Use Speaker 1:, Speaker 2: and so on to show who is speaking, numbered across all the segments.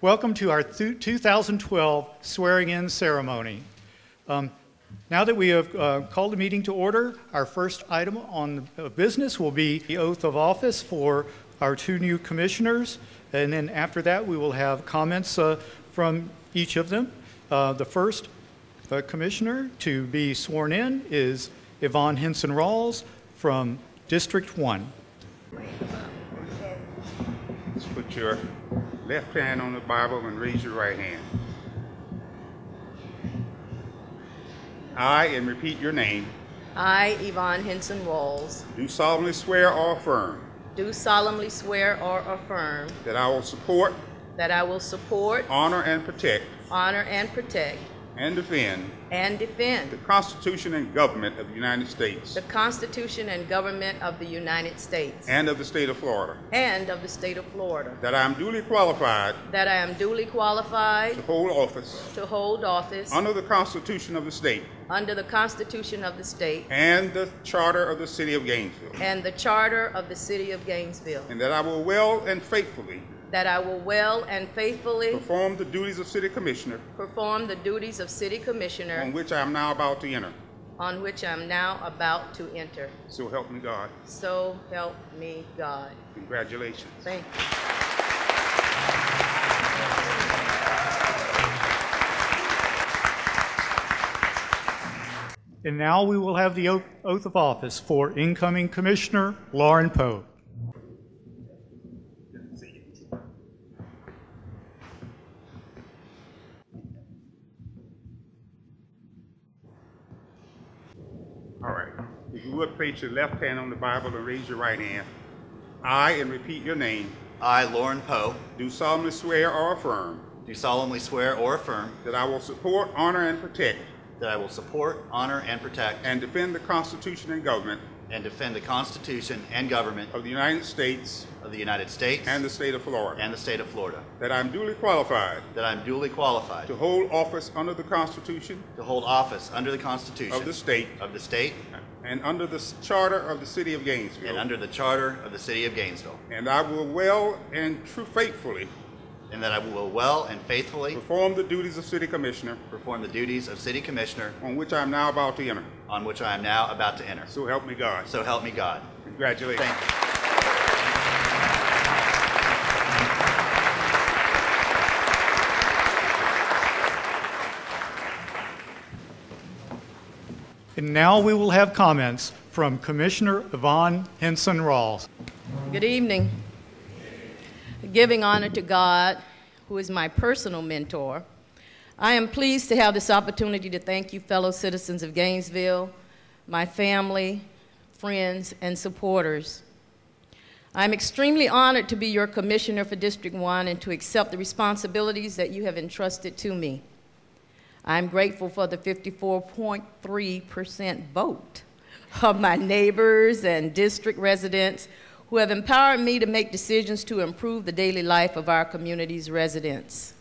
Speaker 1: Welcome to our thu- 2012 swearing-in ceremony. Um, Now that we have uh, called the meeting to order, our first item on the uh, business will be the oath of office for our two new commissioners, and then after that, we will have comments uh, from each of them. Uh, The first uh, commissioner to be sworn in is Yvonne Henson Rawls from District 1.
Speaker 2: Just put your left hand on the Bible and raise your right hand. I, and repeat your name,
Speaker 3: I, Yvonne Henson Walls,
Speaker 2: do solemnly swear or affirm
Speaker 3: do solemnly swear or affirm
Speaker 2: that I will support,
Speaker 3: that I will support,
Speaker 2: honor, and protect
Speaker 3: honor, and protect,
Speaker 2: and defend
Speaker 3: and
Speaker 2: the
Speaker 3: defend
Speaker 2: Constitution and government of the United States
Speaker 3: the Constitution and government of the United States
Speaker 2: and of the state of Florida,
Speaker 3: and of the state of Florida,
Speaker 2: that I am duly qualified
Speaker 3: that I am duly
Speaker 2: to
Speaker 3: qualified
Speaker 2: hold office
Speaker 3: to hold office
Speaker 2: under the Constitution of the state
Speaker 3: under the Constitution of the state
Speaker 2: and the charter of the city of Gainesville,
Speaker 3: and the charter of the city of Gainesville,
Speaker 2: and that I will well and faithfully
Speaker 3: that I will well and faithfully
Speaker 2: perform the duties of city commissioner
Speaker 3: perform the duties of city
Speaker 2: on
Speaker 3: commissioner
Speaker 2: which I am now about to enter.
Speaker 3: on which I am now about to enter.
Speaker 2: So help me God.
Speaker 3: So help me God.
Speaker 2: Congratulations.
Speaker 3: Thank you.
Speaker 1: And now we will have the oath oath of office for incoming Commissioner Lauren Poe.
Speaker 2: All right. If you would place your left hand on the Bible and raise your right hand. I, and repeat your name,
Speaker 4: I, Lauren Poe,
Speaker 2: do solemnly swear or affirm
Speaker 4: do solemnly swear or affirm
Speaker 2: that I will support, honor, and protect
Speaker 4: that I will support, honor, and protect
Speaker 2: and defend the Constitution and government
Speaker 4: and defend the Constitution and government
Speaker 2: of the United States
Speaker 4: of the United States
Speaker 2: and the state of Florida,
Speaker 4: and the state of Florida,
Speaker 2: that I am duly qualified
Speaker 4: that I am duly qualified
Speaker 2: to hold office under the Constitution
Speaker 4: to hold office under the Constitution
Speaker 2: of the state
Speaker 4: of the state
Speaker 2: and under the charter of the city of
Speaker 4: and
Speaker 2: Gainesville,
Speaker 4: under the charter of the city of Gainesville,
Speaker 2: and I will well and true faithfully
Speaker 4: and that I will well and faithfully
Speaker 2: perform the duties of city commissioner
Speaker 4: perform the duties of city commissioner
Speaker 2: on which I am now about to enter.
Speaker 4: on which I am now about to enter.
Speaker 2: So help me God.
Speaker 4: So help me God.
Speaker 2: Congratulations.
Speaker 4: Thank you.
Speaker 1: And now we will have comments from Commissioner Yvonne Henson Rawls.
Speaker 3: Good evening. Giving honor to God, who is my personal mentor, I am pleased to have this opportunity to thank you, fellow citizens of Gainesville, my family, friends, and supporters. I'm extremely honored to be your commissioner for District 1 and to accept the responsibilities that you have entrusted to me. I'm grateful for the 54.3% vote of my neighbors and district residents who have empowered me to make decisions to improve the daily life of our community's residents.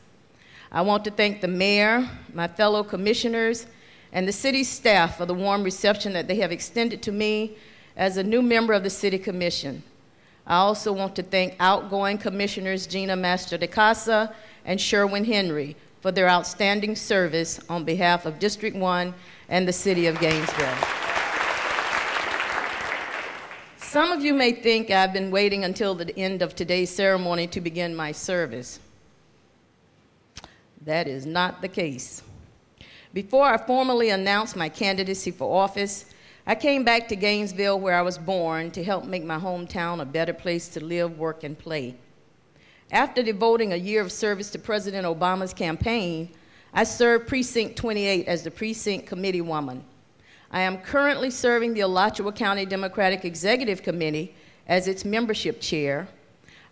Speaker 3: I want to thank the mayor, my fellow commissioners, and the city staff for the warm reception that they have extended to me as a new member of the City Commission. I also want to thank outgoing Commissioners Gina Master de Casa and Sherwin Henry for their outstanding service on behalf of District 1 and the City of Gainesville. Some of you may think I've been waiting until the end of today's ceremony to begin my service. That is not the case. Before I formally announced my candidacy for office, I came back to Gainesville, where I was born, to help make my hometown a better place to live, work, and play. After devoting a year of service to President Obama's campaign, I served Precinct 28 as the precinct committee woman. I am currently serving the Alachua County Democratic Executive Committee as its membership chair.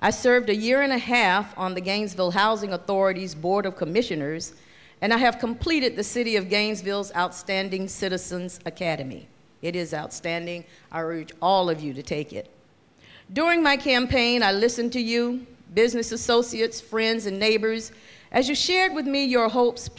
Speaker 3: I served a year and a half on the Gainesville Housing Authority's Board of Commissioners, and I have completed the City of Gainesville's Outstanding Citizens Academy. It is outstanding. I urge all of you to take it. During my campaign, I listened to you, business associates, friends, and neighbors as you shared with me your hopes,